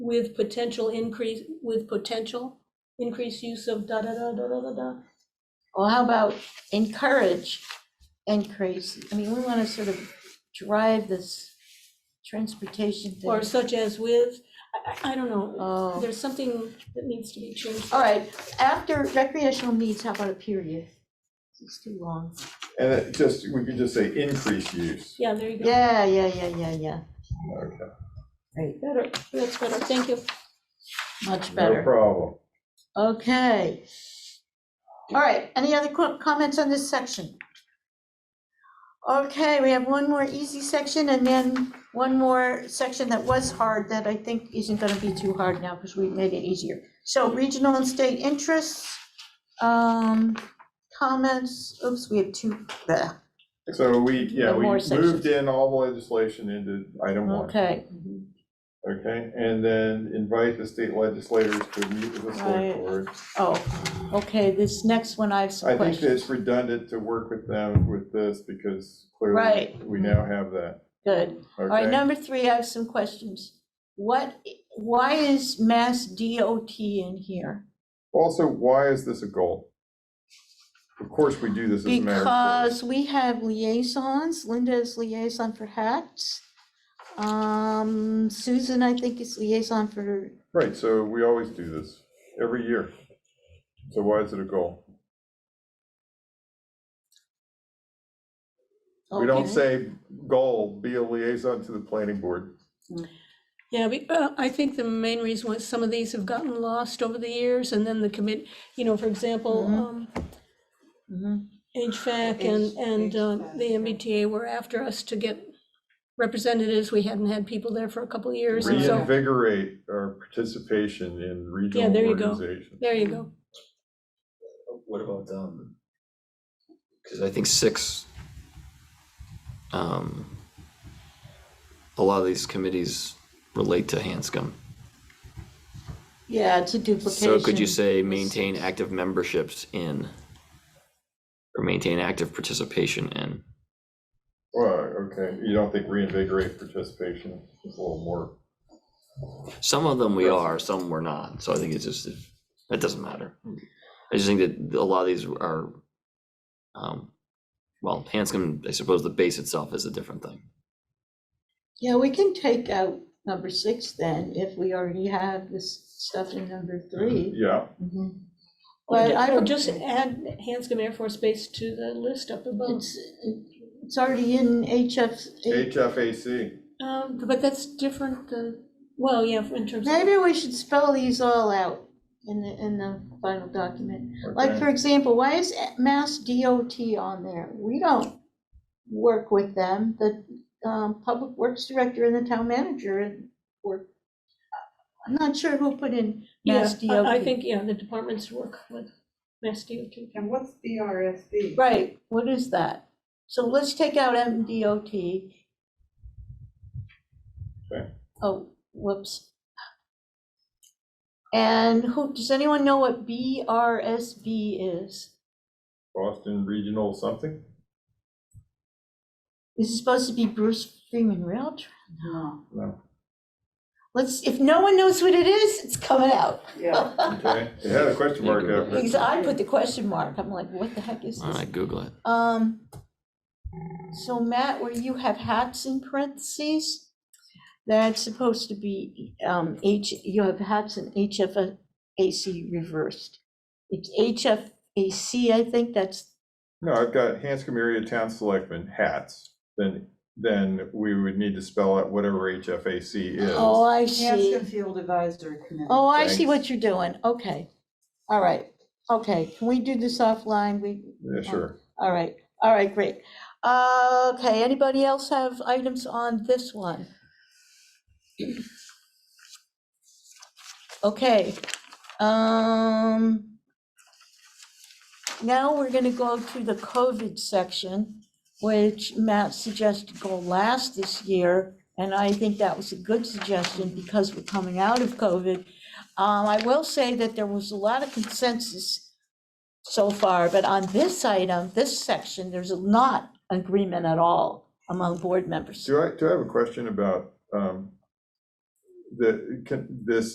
with potential increase, with potential increased use of da da da da da da da. Well, how about encourage increase? I mean, we want to sort of drive this transportation thing. Or such as with, I, I, I don't know, Oh, there's something that needs to be changed. all right, after recreational needs, how about a period? It's too long. And it just, we could just say increase use. Yeah, there you go. Yeah, yeah, yeah, yeah, yeah. Okay, Right, Better, that's better, thank you. much no better. problem. Okay. All right, any other co- comments on this section? Okay, we have one more easy section and then one more section that was hard that I think isn't gonna be too hard now because we made it easier. So regional and state interests, um, comments, oops, we have two, uh, bleh. So we, yeah, There are we more moved sections. in all the legislation into item one, okay, okay? And then invite the state legislators to meet with the Right. select board. oh, okay, this next one I have I some think that questions. it's redundant to work with them with this because clearly Right. we now have that, Good. All right, okay? number three, I have some questions. What, why is Mass DOT in here? Also, why is this a goal? Of course, we do this as a matter of course. Because we have liaisons, Linda is liaison for HATS. Um, Susan, I think is liaison for, Right, so we always do this, every year. So why is it a goal? We don't Okay. say goal, be a liaison to the planning board. Yeah, we- uh, I think the main reason was some of these have gotten lost over the years, and then the commit, you know, for example, Mhm. um, Mhm. HVAC and, Mm-hmm. H- and uh, HVAC, the yeah. MBTA were after us to get representatives. We hadn't had people there for a couple of years, and so, Reinvigorate our participation in regional there you go. organization. there you go. What about, um, because I think six, um, a lot of these committees relate to Hanscom. yeah, it's a duplication. So could you say maintain active memberships in? Or maintain active participation in? Well, okay, you don't think reinvigorate participation is a little more, Some of them we are, some we're not, so I think it's just, it doesn't matter. I just think that a lot of these are, um, well, Hanscom, I suppose the base itself is a different thing. Yeah, we can take out number six then, if we already have this stuff in number three. yeah, Mhm. Or But ju- I or don't. Just add Hanscom Air Force Base to the list up above. It's, it's already in HF. HFAC. Um, But that's different than, well, yeah, in terms of, Maybe we should spell these all out in the, in the final document. Like, okay. for example, why is Mass DOT on there? We don't work with them. The um, Public Works Director and the Town Manager work. I'm not sure who put in yeah, Mass DOT. I I think, yeah, the departments work with Mass DOT. And what's BRSD? Right, what is that? So let's take out MDOT. Okay. Oh, whoops. And who, does anyone know what BRSB is? Boston Regional something? Is it supposed to be Bruce Freeman Rail? Tra- No. No, Let's, if no one knows what it is, it's coming out. Yeah, okay, it had a question mark after it. Because I put the question mark, I'm like, what the heck is All this? right, Google it. Um, so Matt, where you have hats in parentheses, that's supposed to be, um, H, you have hats in HFAC reversed. It's HFAC, I think that's, No, I've got Hanscom area town selectmen hats, then, then we would need to spell out whatever HFAC is. oh, I see. Hampton Field Advisory Committee. Oh, I see Thanks. what you're doing, okay. All right, okay, can we do this offline? We, Yeah, sure. all right, all right, great. Uh, Okay, anybody else have items on this one? Okay, um, now we're gonna go to the COVID section, which Matt suggested go last this year, and I think that was a good suggestion because we're coming out of COVID. Um, I will say that there was a lot of consensus so far, but on this item, this section, there's not agreement at all among board members. Do I, do I have a question about, um, the, can, this